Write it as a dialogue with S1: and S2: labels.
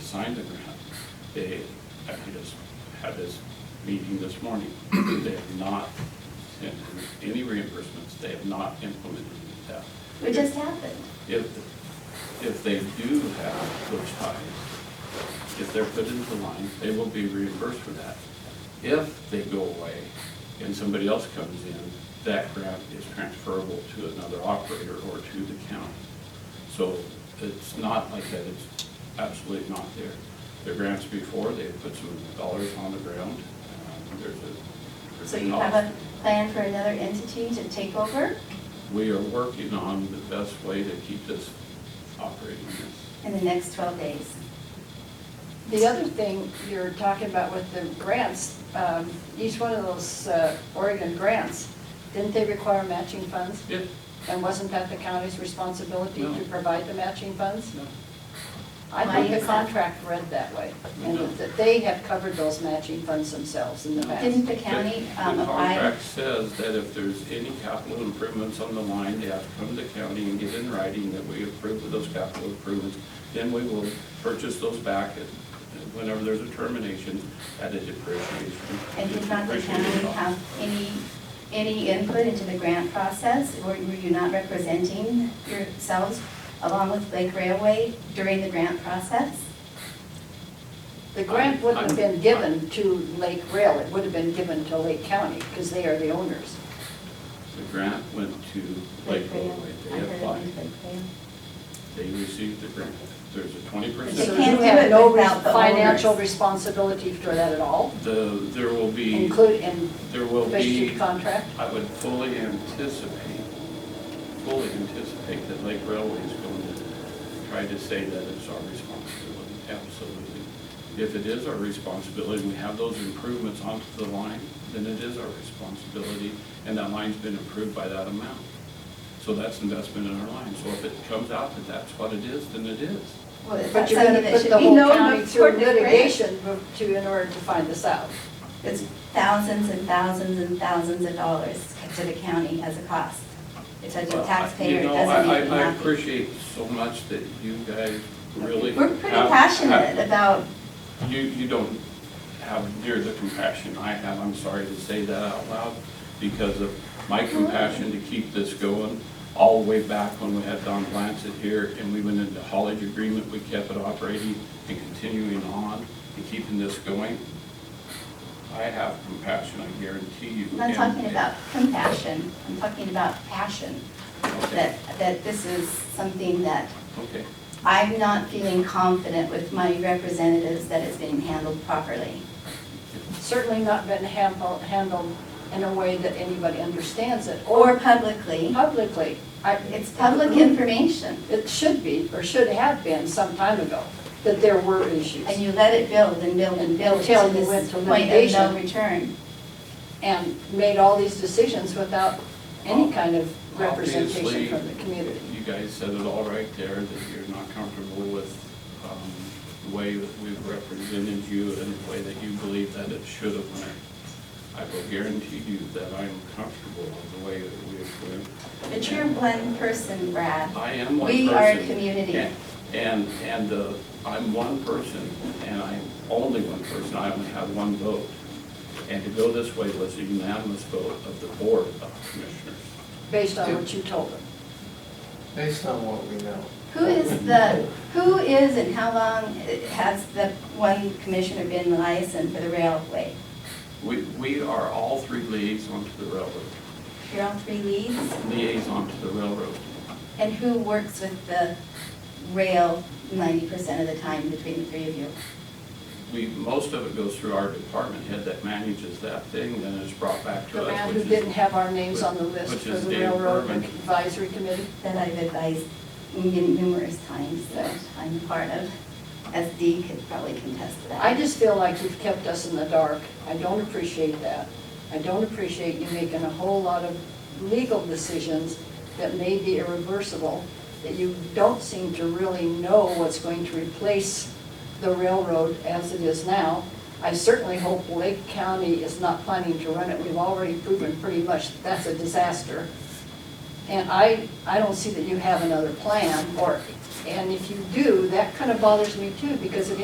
S1: signed the grant, they, I just had this meeting this morning, they have not sent any reimbursements, they have not implemented that.
S2: It just happened.
S1: If, if they do have those ties, if they're put into line, they will be reimbursed for that. If they go away and somebody else comes in, that grant is transferable to another operator or to the county. So it's not like that, it's absolutely not there. The grants before, they put some dollars on the ground, um, there's a.
S2: So you have a plan for another entity to take over,
S1: We are working on the best way to keep this operating.
S2: in the next 12 days.
S3: The other thing you're talking about with the grants, um, each one of those uh, Oregon grants, didn't they require matching funds?
S1: It,
S3: And wasn't that the county's responsibility
S1: No.
S3: to provide the matching funds?
S1: no,
S3: I
S2: Why
S3: think
S2: is
S3: the
S2: that?
S3: contract read that way, and
S1: No.
S3: that they have covered those matching funds themselves in the past.
S2: Didn't the county
S1: The-
S2: um,
S1: The
S2: apply?
S1: contract says that if there's any capital improvements on the line, they have to come to the county and get in writing that we approve of those capital improvements. Then we will purchase those back at- whenever there's a termination at a depreciation.
S2: And did not the
S1: depreciation
S2: county
S1: cost.
S2: have any, any input into the grant process? Or were you not representing yourselves along with Lake Railway during the grant process?
S3: The grant wouldn't have
S1: I'm-
S3: been given to Lake Rail, it would have been given to Lake County, because they are the owners.
S1: The grant went to Lake
S2: Rail.
S1: Railway.
S2: I
S1: They
S2: heard it
S1: applied.
S2: was Lake Rail.
S1: They received the grant. There's a twenty percent.
S2: They
S3: So
S2: can't
S3: you
S2: do
S3: have
S2: it
S3: no
S2: without the
S3: Financial
S2: owners.
S3: responsibility for that at all,
S1: The, there will be,
S3: include, and
S1: there will be.
S3: restricted contract?
S1: I would fully anticipate, fully anticipate that Lake Railway is going to try to say that it's our responsibility, absolutely. If it is our responsibility, and we have those improvements onto the line, then it is our responsibility, and that line's been improved by that amount. So that's investment in our line, so if it comes out that that's what it is, then it is.
S2: Well, is that
S3: But you're gonna
S2: something that
S3: put
S2: should
S3: the
S2: be
S3: whole
S2: known
S3: county through
S2: before the grant?
S3: litigation bef- to, in order to find this out.
S2: It's thousands and thousands and thousands of dollars to the county as a cost. It's a
S1: Well, I-
S2: taxpayer, it
S1: You know,
S2: doesn't
S1: I-
S2: make me
S1: I, I
S2: happy.
S1: appreciate so much that you guys really.
S2: We're pretty
S1: have- have-
S2: passionate about,
S1: You, you don't have near the compassion I have, I'm sorry to say that out loud, because of my compassion to keep this going, all the way back when we had Don Blancett here, and we went into haulage agreement, we kept it operating and continuing on and keeping this going. I have compassion, I guarantee you.
S2: I'm not
S1: and-
S2: talking about compassion, I'm talking about passion.
S1: Okay,
S2: That, that this is something that
S1: okay,
S2: I'm not feeling confident with my representatives that it's being handled properly.
S3: Certainly not been handled, handled in a way that anybody understands it,
S2: Or
S3: or
S2: publicly,
S3: publicly. I-
S2: it's public
S3: Mm-hmm.
S2: information,
S3: It should be, or should have been some time ago, that there were issues.
S2: and you let it build and build and build
S3: Until
S2: to
S3: you went
S2: this
S3: to
S2: point of no
S3: litigation.
S2: return.
S3: And made all these decisions without any kind of representation
S1: Obviously,
S3: from the community.
S1: you guys said it all right there, that you're not comfortable with um, the way that we've represented you and the way that you believe that it should have went. I will guarantee you that I'm comfortable with the way that we have went.
S2: But you're one person, Brad.
S1: I am one person.
S2: We are a community.
S1: and- And, and uh, I'm one person, and I'm only one person, I only have one vote. And to go this way was a unanimous vote of the Board of Commissioners.
S3: based on what you told them.
S4: Based on what we know.
S2: Who is the, who is and how long has the one commissioner been licensed for the railway?
S1: We, we are all three liaison to the railroad,
S2: You're on three leads?
S1: liaison to the railroad.
S2: And who works with the rail ninety percent of the time between the three of you?
S1: We, most of it goes through our department head that manages that thing, then it's brought back
S3: The
S1: to us,
S3: man
S1: which
S3: who
S1: is.
S3: didn't have our names on the list
S1: Which
S3: for
S1: is
S3: the
S1: Dave
S3: railroad
S1: Berman.
S3: advisory committee.
S2: That I've advised n- numerous times that I'm a part of. SD could probably contest to that.
S3: I just feel like you've kept us in the dark. I don't appreciate that. I don't appreciate you making a whole lot of legal decisions that may be irreversible, that you don't seem to really know what's going to replace the railroad as it is now. I certainly hope Lake County is not planning to run it. We've already proven pretty much that that's a disaster. And I, I don't see that you have another plan, or, and if you do, that kind of bothers me too, because it